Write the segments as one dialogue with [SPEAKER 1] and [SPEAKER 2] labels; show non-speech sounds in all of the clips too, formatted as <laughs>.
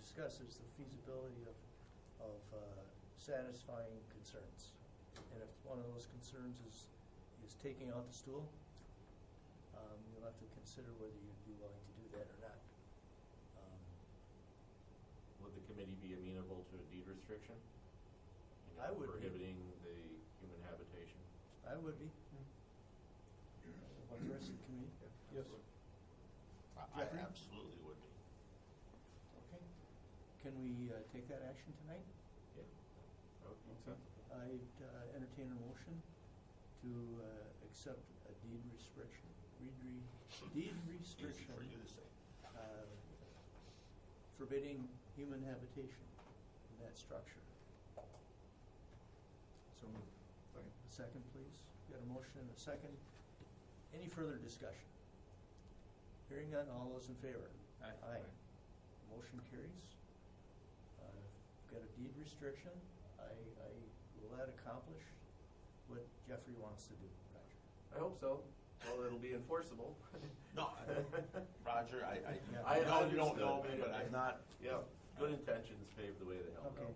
[SPEAKER 1] discuss is the feasibility of, of uh, satisfying concerns. And if one of those concerns is, is taking out the stool, um, you'll have to consider whether you'd be willing to do that or not. Um,
[SPEAKER 2] Would the committee be amenable to a deed restriction? You know,
[SPEAKER 1] I would be.
[SPEAKER 2] Prohibiting the human habitation?
[SPEAKER 1] I would be. What the rest of the committee?
[SPEAKER 3] Yes.
[SPEAKER 4] I- I
[SPEAKER 1] Jeffrey?
[SPEAKER 4] absolutely would be.
[SPEAKER 1] Okay. Can we uh, take that action tonight?
[SPEAKER 2] Yeah.
[SPEAKER 1] Okay. I'd uh, entertain a motion to uh, accept a deed restriction, reed re- deed
[SPEAKER 4] Easy
[SPEAKER 1] restriction
[SPEAKER 4] for you to say.
[SPEAKER 1] uh, forbidding human habitation in that structure. So moved. A second, please. Got a motion and a second. Any further discussion? Hearing none, all those in favor? Aye. Motion carries. Uh, I've Got a deed restriction. I, I, will that accomplish what Jeffrey wants to do? Roger?
[SPEAKER 2] I hope so. Well, it'll be enforceable.
[SPEAKER 4] <laughs>
[SPEAKER 2] <laughs>
[SPEAKER 4] No, I- Roger, I, I,
[SPEAKER 1] Yeah.
[SPEAKER 2] I- I
[SPEAKER 4] no, you don't
[SPEAKER 2] understood.
[SPEAKER 4] know me, but I'm not,
[SPEAKER 2] Yeah, good intentions pave the way to hell,
[SPEAKER 1] Okay.
[SPEAKER 2] though.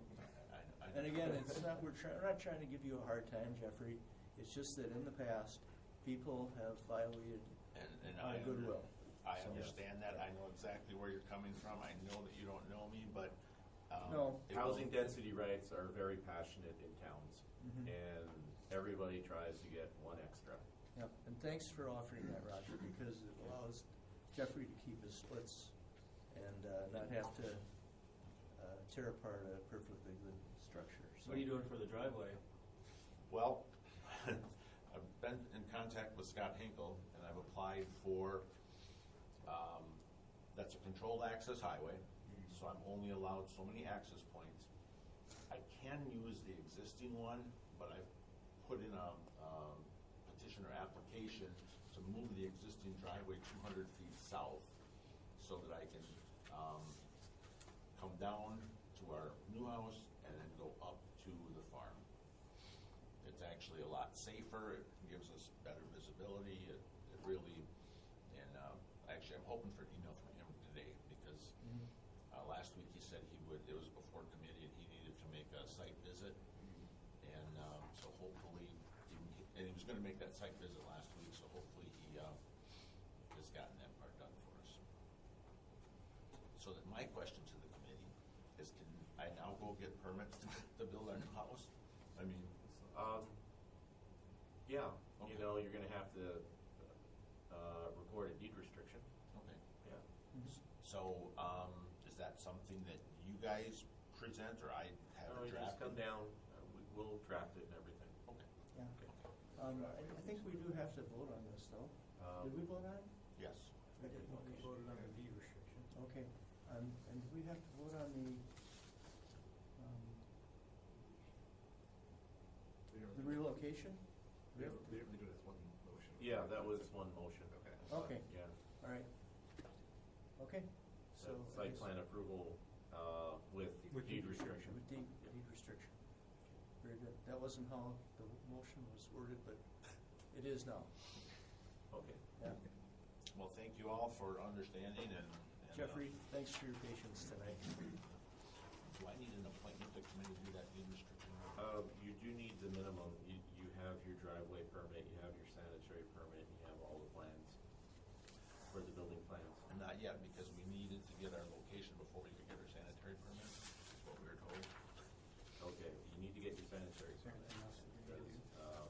[SPEAKER 4] I, I.
[SPEAKER 1] And again, it's not, we're trying, we're not trying to give you a hard time, Jeffrey. It's just that in the past, people have violated
[SPEAKER 4] And, and
[SPEAKER 1] our
[SPEAKER 4] I.
[SPEAKER 1] goodwill.
[SPEAKER 4] I
[SPEAKER 1] So-
[SPEAKER 4] understand that, I know exactly where you're coming from, I know that you don't know me, but, um.
[SPEAKER 1] No.
[SPEAKER 4] it will-
[SPEAKER 2] Housing density rights are very passionate in towns,
[SPEAKER 1] Mhm.
[SPEAKER 4] Mm-hmm.
[SPEAKER 2] and everybody tries to get one extra.
[SPEAKER 1] Yep, and thanks for offering that, Roger, because it allows Jeffrey to keep his splits and uh, not have to uh, tear apart a perfectly good structure. So
[SPEAKER 5] What are you doing for the driveway?
[SPEAKER 4] Well, <laughs> I've been in contact with Scott Hinkle, and I've applied for, um, that's a controlled access highway, so I'm only allowed so many access points. I can use the existing one, but I've put in a, um, petition or application to move the existing driveway two hundred feet south, so that I can, um, come down to our new house and then go up to the farm. It's actually a lot safer, it gives us better visibility, it, it really, and, uh, actually, I'm hoping for an email from him today, because,
[SPEAKER 1] Mm-hmm.
[SPEAKER 4] uh, last week he said he would, it was before committee, and he needed to make a site visit, and, um, so hopefully, he- and he was gonna make that site visit last week, so hopefully he, uh, has gotten that part done for us. So that my question to the committee is, can I now go get permits to, <laughs> to build our new house? I mean,
[SPEAKER 2] Um, yeah,
[SPEAKER 4] Okay.
[SPEAKER 2] you know, you're gonna have to, uh, record a deed restriction.
[SPEAKER 4] okay.
[SPEAKER 2] Yeah.
[SPEAKER 4] So, um, is that something that you guys present or I have
[SPEAKER 2] No,
[SPEAKER 4] it
[SPEAKER 2] you
[SPEAKER 4] drafted?
[SPEAKER 2] just come down, uh, we, we'll draft it and everything.
[SPEAKER 4] Okay,
[SPEAKER 1] Yeah. Um, I I think we do have to vote on this, though. Did we
[SPEAKER 2] Um,
[SPEAKER 1] vote on it?
[SPEAKER 4] yes.
[SPEAKER 1] We did, okay.
[SPEAKER 5] voted on the deed restriction.
[SPEAKER 1] Okay, um, and do we have to vote on the, um, the relocation? We have to-
[SPEAKER 3] do it as one motion.
[SPEAKER 2] Yeah, that was one motion.
[SPEAKER 3] Okay.
[SPEAKER 1] Okay,
[SPEAKER 2] Yeah,
[SPEAKER 1] all right. Okay, so. I
[SPEAKER 2] site
[SPEAKER 1] guess-
[SPEAKER 2] plan approval, uh, with
[SPEAKER 5] With
[SPEAKER 2] deed
[SPEAKER 5] deed
[SPEAKER 2] restriction.
[SPEAKER 1] With deed, deed restriction. Very good. That wasn't how the motion was worded, but it is now.
[SPEAKER 2] Okay.
[SPEAKER 1] Yeah.
[SPEAKER 4] Well, thank you all for understanding and. and, uh,
[SPEAKER 1] Jeffrey, thanks for your patience tonight.
[SPEAKER 4] Do I need an appointment to come in and do that deed restriction?
[SPEAKER 2] Um, you do need the minimum, you, you have your driveway permit, you have your sanitary permit, you have all the plans for the building plans.
[SPEAKER 4] Not yet, because we needed to get our location before we could get our sanitary permit, is what we were told.
[SPEAKER 2] Okay, you need to get your sanitary permit. Because, uh,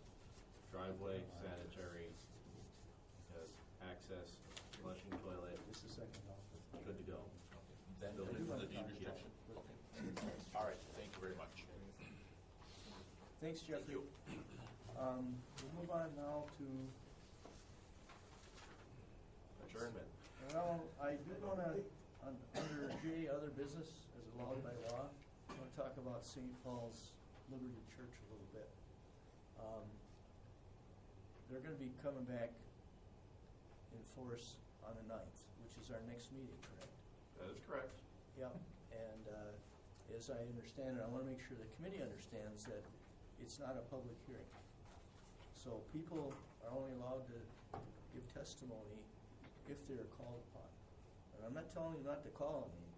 [SPEAKER 2] driveway, sanitary, because access, flushing toilet,
[SPEAKER 1] Just a second, I'll-
[SPEAKER 2] good to go.
[SPEAKER 4] Okay. Then
[SPEAKER 2] So
[SPEAKER 4] we'll
[SPEAKER 2] we
[SPEAKER 4] do
[SPEAKER 1] want
[SPEAKER 4] the
[SPEAKER 1] to
[SPEAKER 4] deed
[SPEAKER 1] talk about
[SPEAKER 4] restriction. Okay. All right, thank you very much.
[SPEAKER 1] Thanks, Jeffrey. Um, we'll move on now to
[SPEAKER 2] Adjournment.
[SPEAKER 1] Well, I do wanna, un- under J, other business, as allowed by law, I wanna talk about St. Paul's Liberty Church a little bit. Um, They're gonna be coming back in force on the ninth, which is our next meeting, correct?
[SPEAKER 2] That is correct.
[SPEAKER 1] Yep, and uh, as I understand it, I want to make sure the committee understands that it's not a public hearing. So people are only allowed to give testimony if they're called upon. And I'm not telling you not to call on me,